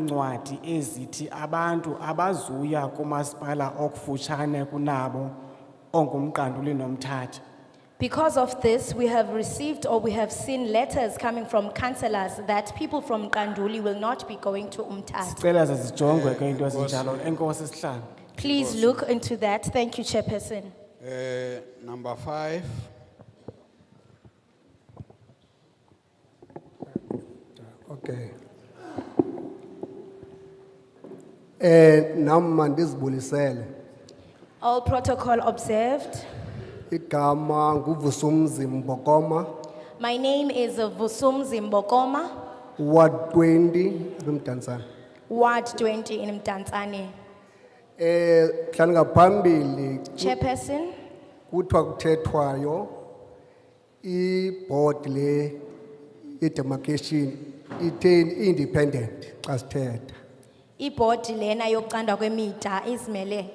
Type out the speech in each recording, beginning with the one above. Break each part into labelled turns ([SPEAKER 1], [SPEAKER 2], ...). [SPEAKER 1] iincwadi ezithi abantu abazuya kumasipala okufutshane kunabo ongumqanduli nomthatha
[SPEAKER 2] Because of this, we have received or we have seen letters coming from councillors that people from Kanduli will not be going to Umtata.
[SPEAKER 1] sicela zezijongwe ke into ezinjalo enkosi sihlanu
[SPEAKER 2] Please look into that. Thank you, Chairperson.
[SPEAKER 3] Eh, number five,
[SPEAKER 4] Okay. Eh nami mandizibulisele
[SPEAKER 2] All protocol observed.
[SPEAKER 4] igama nguvusumzi Mbokoma
[SPEAKER 2] My name is Vusum Zimbokoma,
[SPEAKER 4] Ward 20 rimdantsana
[SPEAKER 2] Ward 20 in Mtanzani.
[SPEAKER 4] eh hlanga phambili
[SPEAKER 2] Chairperson,
[SPEAKER 4] kuthiwa kuthethwayo iboard le idemarcation ithe independent xa sithetha
[SPEAKER 2] ibhodi lena yokucanda kwemida izimele.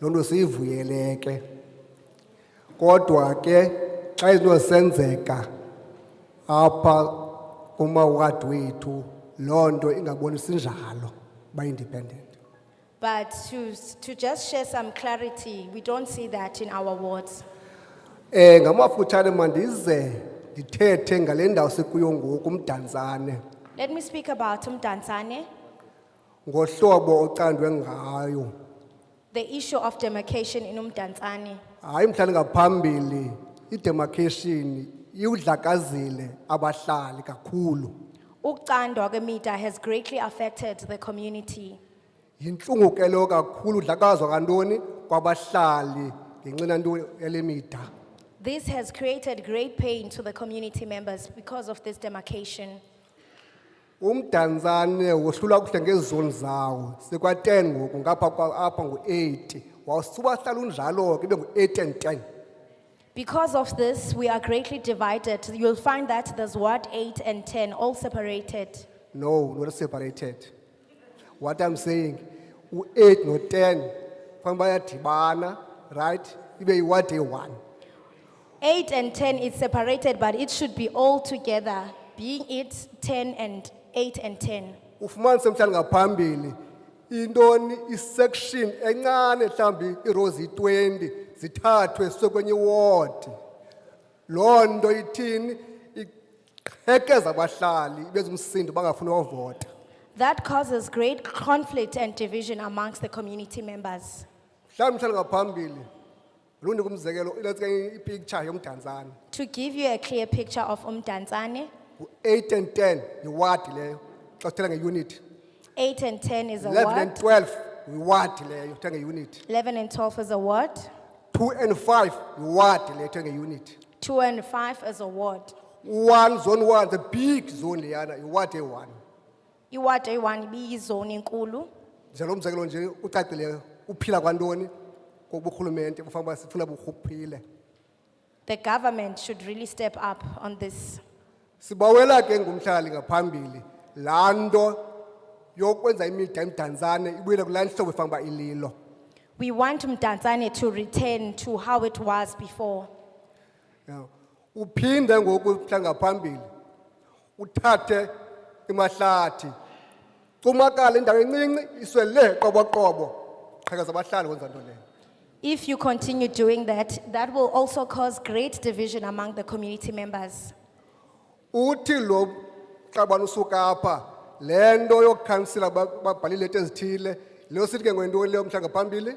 [SPEAKER 4] lonto siyivuyeleke kodwa ke xa izinto senzeka apha kumawadi wethu loo nto ingabonisi njalo ba-independent
[SPEAKER 2] But to, to just share some clarity, we don't see that in our wards.
[SPEAKER 4] um ngamafutshane mandize ndithethe ngale ndawo sikuyo ngoku umdantsane
[SPEAKER 2] Let me speak about Mtanzani,
[SPEAKER 4] ngohlobo ocandwe ngayo
[SPEAKER 2] the issue of demarcation in Mtanzani.
[SPEAKER 4] hayi mhlali ngaphambili idemarcation iwudlakazile abahlali kakhulu
[SPEAKER 2] Ukcandwa kwemida has greatly affected the community.
[SPEAKER 4] yintlungu ke lo kakhulu udlakazwa kantoni kwabahlali ngenxina nto elemida
[SPEAKER 2] This has created great pain to the community members because of this demarcation.
[SPEAKER 4] umdantsane wohlulwa kuhle ngezizoni zawo sikwa-10 ngoku ngapha kwa- apha ngu-80 wasubahlala unjalo ke ibe ngu-8 and 10
[SPEAKER 2] Because of this, we are greatly divided. You'll find that there's Ward 8 and 10 all separated.
[SPEAKER 4] no not separated what i'm saying u-8 no-10 fanele bayadibana right ibe yiwadi eyi-one
[SPEAKER 2] 8 and 10 is separated, but it should be all together, being it 10 and 8 and 10.
[SPEAKER 4] ufumanise mhlawumbi ngaphambili intoni isection encane mhlawumbi iirow ziyi-20 zithathwe sekwenye iwodi loo nto ithini iqhekeza abahlali ibeze umsindo bangafuni wavota
[SPEAKER 2] That causes great conflict and division amongst the community members.
[SPEAKER 4] mhlawumbi mhlawumbi ngaphambili lundiku umzekelo let's say ipicture yomdantsane
[SPEAKER 2] To give you a clear picture of Umdanzane,
[SPEAKER 4] ngu-8 and 10 yiwadi leyo xa sithela ngeunithi
[SPEAKER 2] 8 and 10 is a
[SPEAKER 4] 11 and
[SPEAKER 2] ward,
[SPEAKER 4] 12 yiwadi leyo sithela ngeunithi
[SPEAKER 2] 11 and 12 is a ward,
[SPEAKER 4] 2 and 5 yiwadi leyo sithela ngeunithi
[SPEAKER 2] 2 and 5 is a ward.
[SPEAKER 4] one zone one the big zone leyana iward eyi-one
[SPEAKER 2] Iward A1 biyizone enkulu.
[SPEAKER 4] njalo umzekelo nje ucacileyo uphila kwantoni koburhulumente kufanele uba sifuna buphile
[SPEAKER 2] The government should really step up on this.
[SPEAKER 4] sibawela ke ngumhlali ngaphambili laa nto yokwenza imida emdantsane ibuyele kulaa ntlobo efanele uba ililo
[SPEAKER 2] We want Umdanzane to return to how it was before.
[SPEAKER 4] Yeah. uphinde ngoku mhla ngaphambili uthathe imahlathi cumakale indawo encinci iswele qoboqobo qhekeza abahlali kwenza nto leyo
[SPEAKER 2] If you continue doing that, that will also cause great division among the community members.
[SPEAKER 4] uthi lo xabana usuka apha le nto yokukhansila ba- babhalile ethi ezithile leyo sithi ke ngwentoni leyo mhlanga phambili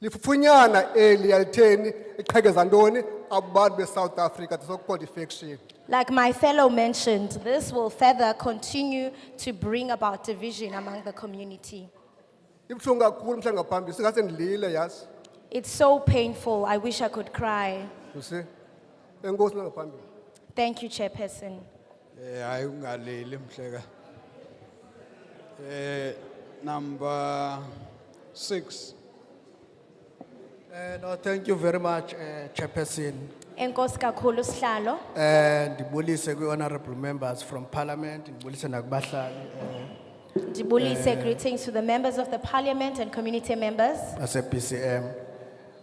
[SPEAKER 4] lifufunyana eli yalitheni iqhekeza ntoni abantu besouth africa the so-called faction
[SPEAKER 2] Like my fellow mentioned, this will further continue to bring about division among the community.
[SPEAKER 4] ibuhlungu kakhulu mhlanga phambili singase ndilile yasi
[SPEAKER 2] It's so painful. I wish I could cry.
[SPEAKER 4] usi enkosi nangaphambili
[SPEAKER 2] Thank you, Chairperson.
[SPEAKER 3] eh, ayi ungaleli mhleka. Eh, number six,
[SPEAKER 5] Eh, no, thank you very much, eh, Chairperson.
[SPEAKER 2] Enkosi kakhulu sihlalo.
[SPEAKER 5] Eh, ndibulise kwi honorable members from parliament, ndibulise nakubahlali, eh,
[SPEAKER 2] Ndibulise greetings to the members of the parliament and community members.
[SPEAKER 5] base BCM.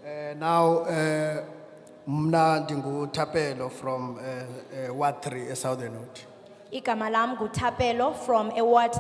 [SPEAKER 5] Eh, now, eh, mna ndingu Tapelo from, eh, eh, Ward Three, eh, Southern Wood.
[SPEAKER 2] Igama lam nguThapelo from Award